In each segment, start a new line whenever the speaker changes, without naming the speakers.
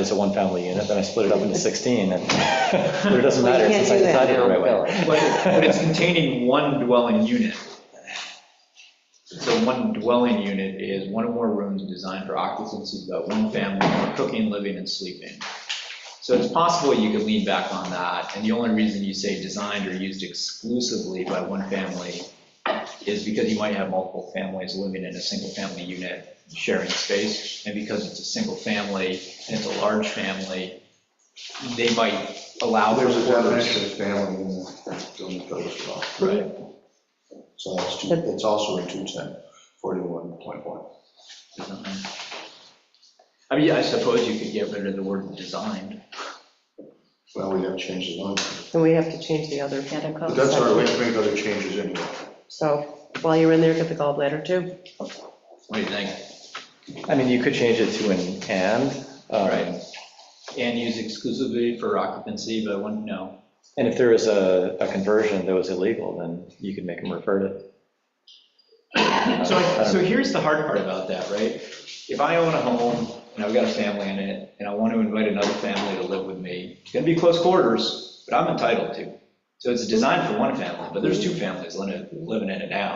it's a one-family unit, then I split it up into 16, and but it doesn't matter,
Well, you can't
since I
do that
decided it
now,
the right way.
really.
But but it's containing one dwelling unit. So one dwelling unit is one or more rooms designed for occupancy of about one family for cooking, living, and sleeping. So it's possible you could lean back on that, and the only reason you say designed or used exclusively by one family is because you might have multiple families living in a single-family unit sharing space, and because it's a single family and it's a large family, they might allow.
There's a
quarters.
definition of family in the building code as well.
Right.
So that's, two- it's also in 210, 41.1.
design. I mean, I suppose you could get rid of the word designed.
Well, we have changed the line.
And we have to change the other.
But that's our way to make other changes anyway.
So while you're in there, get the gallbladder too.
What do you think?
I mean, you could change it to an and, um,
Right. And use exclusively for occupancy, but one, no.
and if there was a a conversion that was illegal, then you could make them revert it.
So, I- so here's the hard part about that, right? If I own a home and I've got a family in it, and I want to invite another family to live with me, it's gonna be close quarters, but I'm entitled to. So it's designed for one family, but there's two families living living in it now.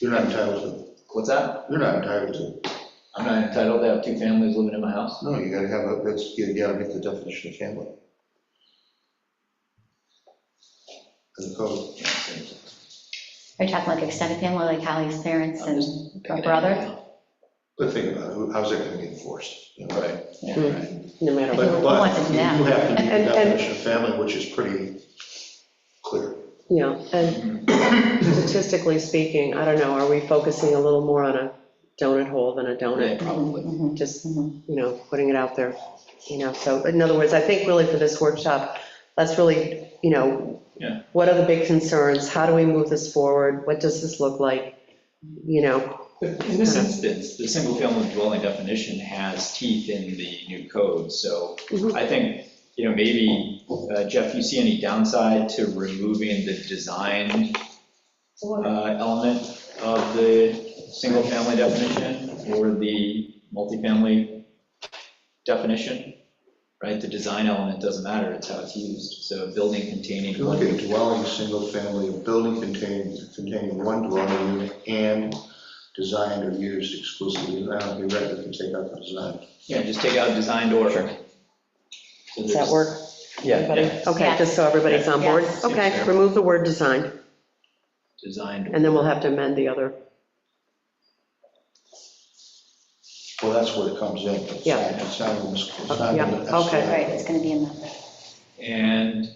You're not entitled
What's that?
to, you're not entitled to.
I'm not entitled to have two families living in my house?
No, you gotta have, a. that's, you gotta meet the definition of family. In the code.
Are you talking like extended family, like Hallie's parents
I'm just
and her brother?
But think about it, who- how's that gonna be enforced? you know?
Right. Yeah, right.
No matter what.
But,
Who wants
but
it
you do
now?
have to meet the
And- and-
definition of family, which is pretty clear.
Yeah, and statistically speaking, I don't know, are we focusing a little more on a donut hole than a
Yeah,
donut?
probably.
Mhm,
Just, you
mhm.
know, putting it out there, you know, so in other words, I think really for this workshop, that's really, you know,
Yeah.
what are the big concerns? How do we move this forward? What does this look like? You know,
In this
Uh-huh.
instance, the single-family dwelling definition has teeth in the new code, so
Mhm.
I think, you know, maybe, uh, Jeff, you see any downside to removing the design uh, element of the single-family definition or the multifamily definition? Right, the design element doesn't matter, it's how it's used, so building containing.
If you look at dwelling, single family, a building containing, containing one dwelling unit and designed or used exclusively, I don't think that we can take out the design.
Yeah, just take out designed or.
Sure.
So
does
there's-
that work?
Yeah,
Everybody?
Yeah.
Okay, just so everybody's on board.
Yes.
Okay, remove the word design,
Designed.
and then we'll have to amend the other.
Well, that's where it comes in. It's
Yeah.
not- It's not in this, it's not in
Yeah,
the.
okay.
Right, it's going to be in the,
And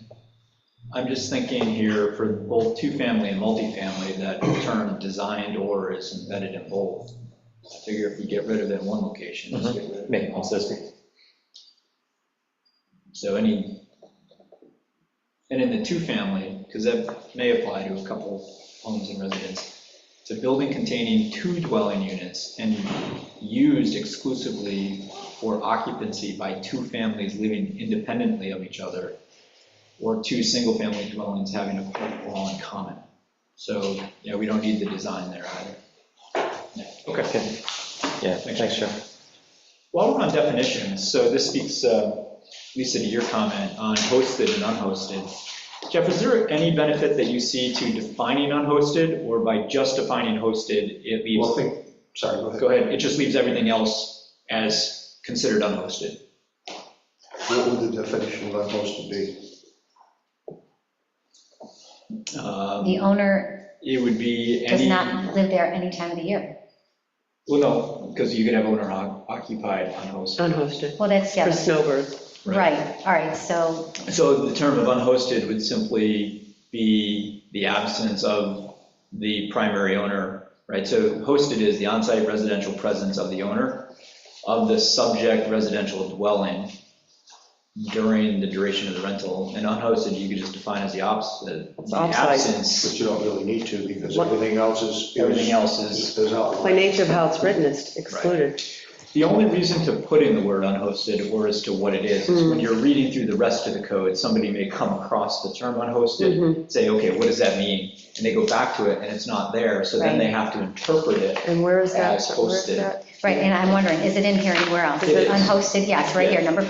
I'm just thinking here for both two-family and multifamily, that term designed or is embedded in both. I figure if you get rid of it in one location, just get rid of
make
it
them
in all.
consistent.
So any, and in the two-family, because that may apply to a couple homes and residents, it's a building containing two dwelling units and used exclusively for occupancy by two families living independently of each other, or two single-family dwellings having a court wall in common. So, yeah, we don't need the design there either.
Okay. Yeah, thanks, Joe.
While we're on definitions, so this speaks, uh, Lisa, to your comment on hosted and unhosted. Jeff, is there any benefit that you see to defining unhosted, or by just defining hosted, it
Well, I
leaves,
think, sorry, go ahead.
go ahead, it just leaves everything else as considered unhosted?
What would the definition of unhosted be?
Um,
the owner
It would be
does
any,
not live there any time of the year.
well, no, because you could have owner occupied unhosted.
Unhosted,
Well, that's, yeah,
for
that's-
snowbirds.
right, all right, so,
So the term of unhosted would simply be the absence of the primary owner, right? So hosted is the on-site residential presence of the owner of the subject residential dwelling during the duration of the rental. And unhosted, you could just define as the opposite, the
offsite.
absence,
But you don't really need to because
What-
everything else is.
everything else is.
Is outlined.
By nature of how it's written, it's excluded.
The only reason to put in the word unhosted or as to what it is, is
Mm-hmm.
when you're reading through the rest of the code, somebody may come across the term unhosted
Mhm.
say, okay, what does that mean? And they go back to it and it's not there, so then
Right.
they have to interpret it.
And where is that?
As
Where is
hosted.
that?
right, and I'm wondering, is it in here anywhere else?
It is.
Unhosted, yes, right here, number